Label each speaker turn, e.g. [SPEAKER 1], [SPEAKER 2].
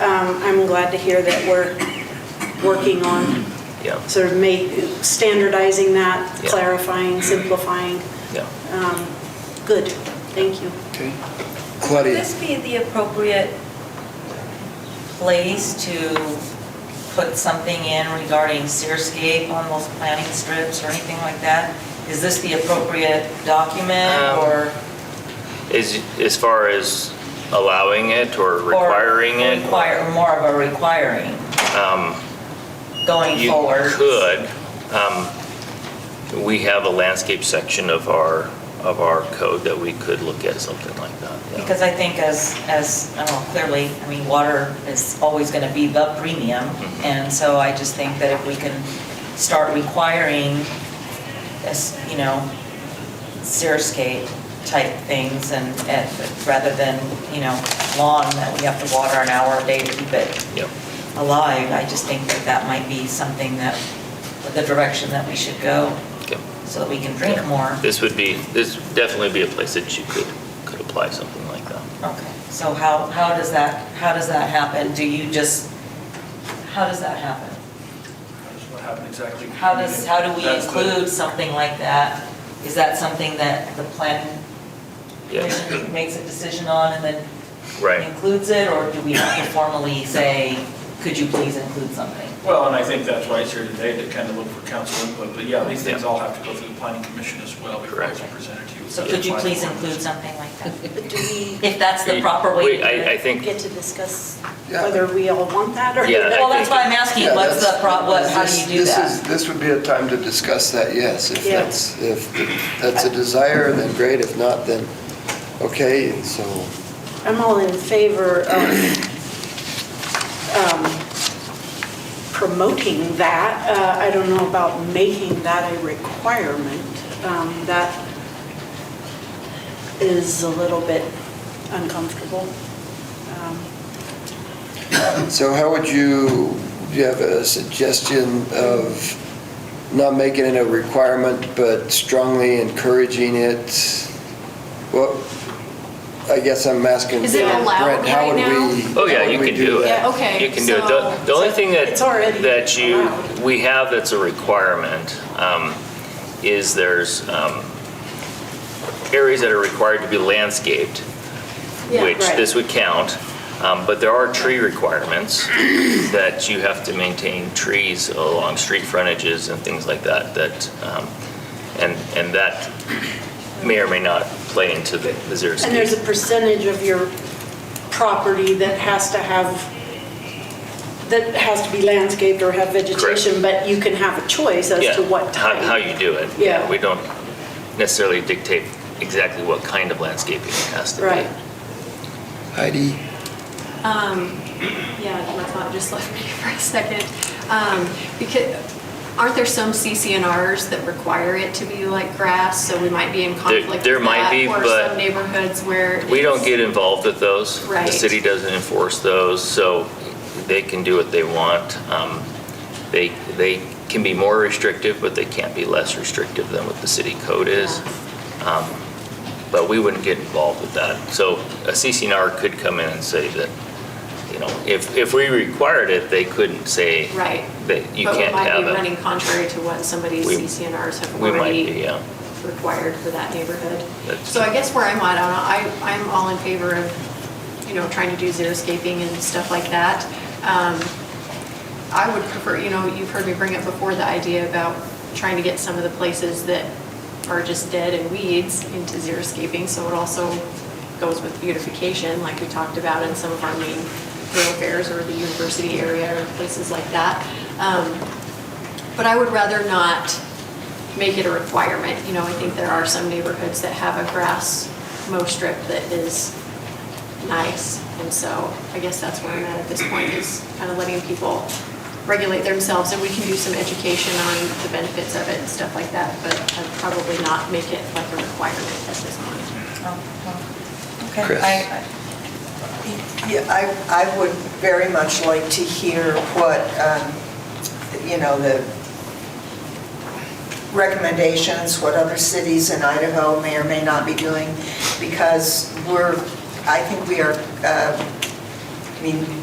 [SPEAKER 1] Um, I'm glad to hear that we're working on
[SPEAKER 2] Yeah,
[SPEAKER 1] sort of make, standardizing that,
[SPEAKER 2] Yeah.
[SPEAKER 1] clarifying, simplifying.
[SPEAKER 2] yeah.
[SPEAKER 1] Good, thank you.
[SPEAKER 3] Okay.
[SPEAKER 4] Would
[SPEAKER 3] Claudia,
[SPEAKER 4] this be the appropriate place to put something in regarding Searscape on those planting strips or anything like that? Is this the appropriate document
[SPEAKER 2] Um,
[SPEAKER 4] or?
[SPEAKER 2] As, as far as allowing it or
[SPEAKER 4] or
[SPEAKER 2] requiring it? Um,
[SPEAKER 4] Require, more of a requiring going
[SPEAKER 2] You
[SPEAKER 4] forward?
[SPEAKER 2] could. Um, We have a landscape section of our, of our code that we could look at something like that. yeah.
[SPEAKER 4] Because I think as, as, I don't know, clearly, I mean, water is always going to be the premium. And so I just think that if we can start requiring, as, you know, xeriscape type things and, and rather than, you know, lawn that we have to water an hour a day to keep it
[SPEAKER 2] Yep.
[SPEAKER 4] alive, I just think that that might be something that, the direction that we should go
[SPEAKER 2] Okay.
[SPEAKER 4] so that we can drink more.
[SPEAKER 2] This would be, this would definitely be a place that you could, could apply something like that.
[SPEAKER 4] Okay, so how, how does that, how does that happen? Do you just, how does that happen?
[SPEAKER 5] That's what happened exactly.
[SPEAKER 4] How does, how do we
[SPEAKER 5] That's the-
[SPEAKER 4] include something like that? Is that something that the planning
[SPEAKER 2] Yeah,
[SPEAKER 4] commission makes a decision on and then
[SPEAKER 2] right.
[SPEAKER 4] includes it? Or do we have to formally say, could you please include something?
[SPEAKER 5] Well, and I think that's why it's here today, to kind of look for council input, but yeah, these things all have to go through the planning commission as well before it's
[SPEAKER 2] Correct.
[SPEAKER 5] presented to you.
[SPEAKER 4] So could you please include something like that?
[SPEAKER 1] But do we
[SPEAKER 4] If that's the proper way to
[SPEAKER 2] Wait,
[SPEAKER 4] do
[SPEAKER 2] I, I
[SPEAKER 4] it?
[SPEAKER 2] think,
[SPEAKER 1] get to discuss
[SPEAKER 3] Yeah.
[SPEAKER 1] whether we all want that or?
[SPEAKER 2] Yeah, I
[SPEAKER 4] Well, that's
[SPEAKER 2] think-
[SPEAKER 4] why I'm asking,
[SPEAKER 3] Yeah,
[SPEAKER 4] what's the,
[SPEAKER 3] that's-
[SPEAKER 4] pro- what, how do
[SPEAKER 3] this-
[SPEAKER 4] you do
[SPEAKER 3] this is-
[SPEAKER 4] that?
[SPEAKER 3] This would be a time to discuss that, yes. If
[SPEAKER 1] Yeah.
[SPEAKER 3] that's, if that's a desire, then great. If not, then, okay, so,
[SPEAKER 1] I'm all in favor of um, promoting that. Uh, I don't know about making that a requirement. Um, That is a little bit uncomfortable. Um,
[SPEAKER 3] so how would you, do you have a suggestion of not making it a requirement, but strongly encouraging it? Well, I guess I'm asking.
[SPEAKER 6] Is it
[SPEAKER 3] Brent,
[SPEAKER 6] allowed
[SPEAKER 3] how would
[SPEAKER 6] right
[SPEAKER 3] we-
[SPEAKER 6] now?
[SPEAKER 2] oh
[SPEAKER 3] how
[SPEAKER 2] yeah,
[SPEAKER 3] would
[SPEAKER 2] you
[SPEAKER 3] we
[SPEAKER 2] can do
[SPEAKER 3] that?
[SPEAKER 6] Yeah,
[SPEAKER 2] it.
[SPEAKER 6] okay,
[SPEAKER 2] You can do it.
[SPEAKER 6] so-
[SPEAKER 2] The the only thing that,
[SPEAKER 1] It's already
[SPEAKER 2] that you,
[SPEAKER 1] allowed.
[SPEAKER 2] we have that's a requirement um, is there's um, areas that are required to be landscaped, which
[SPEAKER 1] right.
[SPEAKER 2] this would count, um, but there are tree requirements that you have to maintain trees along street frontages and things like that, that, um, and, and that may or may not play into the the zero
[SPEAKER 1] And there's
[SPEAKER 2] escape.
[SPEAKER 1] a percentage of your property that has to have, that has to be landscaped or have vegetation, but you can have a choice as
[SPEAKER 2] Yeah,
[SPEAKER 1] to what
[SPEAKER 2] how-
[SPEAKER 1] type.
[SPEAKER 2] How you do it.
[SPEAKER 1] Yeah.
[SPEAKER 2] We don't necessarily dictate exactly what kind of landscaping it has to be.
[SPEAKER 1] Right.
[SPEAKER 3] Heidi?
[SPEAKER 6] Um, yeah, my thought just left me for a second. Um, because, aren't there some CCNRs that require it to be like grass, so we might be in conflict with that?
[SPEAKER 2] there might be, but
[SPEAKER 6] Or some neighborhoods where.
[SPEAKER 2] We don't
[SPEAKER 6] it's-
[SPEAKER 2] get involved with those. The
[SPEAKER 6] Right.
[SPEAKER 2] city doesn't enforce those, so they can do what they want. Um, They, they can be more restrictive, but they can't be less restrictive than what the city code is. Um, But we wouldn't get involved with that. So a CCNR could come in and say that, you know, if, if we required it, they couldn't say
[SPEAKER 6] Right.
[SPEAKER 2] that you
[SPEAKER 6] But we
[SPEAKER 2] can't
[SPEAKER 6] might
[SPEAKER 2] have
[SPEAKER 6] be running
[SPEAKER 2] it.
[SPEAKER 6] contrary to what some of these
[SPEAKER 2] We-
[SPEAKER 6] CCNRs have
[SPEAKER 2] We might
[SPEAKER 6] already
[SPEAKER 2] be, yeah.
[SPEAKER 6] required for that neighborhood.
[SPEAKER 2] That's-
[SPEAKER 6] So I guess where I'm at, I, I'm all in favor of, you know, trying to do xeriscaping and stuff like that. Um, I would prefer, you know, you've heard me bring up before the idea about trying to get some of the places that are just dead and weeds into xeriscaping, so it also goes with beautification, like we talked about in some of our main thoroughfares or the university area or places like that. Um, but I would rather not make it a requirement. You know, I think there are some neighborhoods that have a grass mow strip that is nice. And so I guess that's where I'm at at this point, is kind of letting people regulate themselves. And we can do some education on the benefits of it and stuff like that, but I'd probably not make it like a requirement at this point.
[SPEAKER 4] Oh, oh. Okay,
[SPEAKER 3] Chris.
[SPEAKER 4] I- I-
[SPEAKER 7] Yeah, I, I would very much like to hear what, um, you know, the recommendations, what other cities in Idaho may or may not be doing, because we're, I think we are, uh, I mean,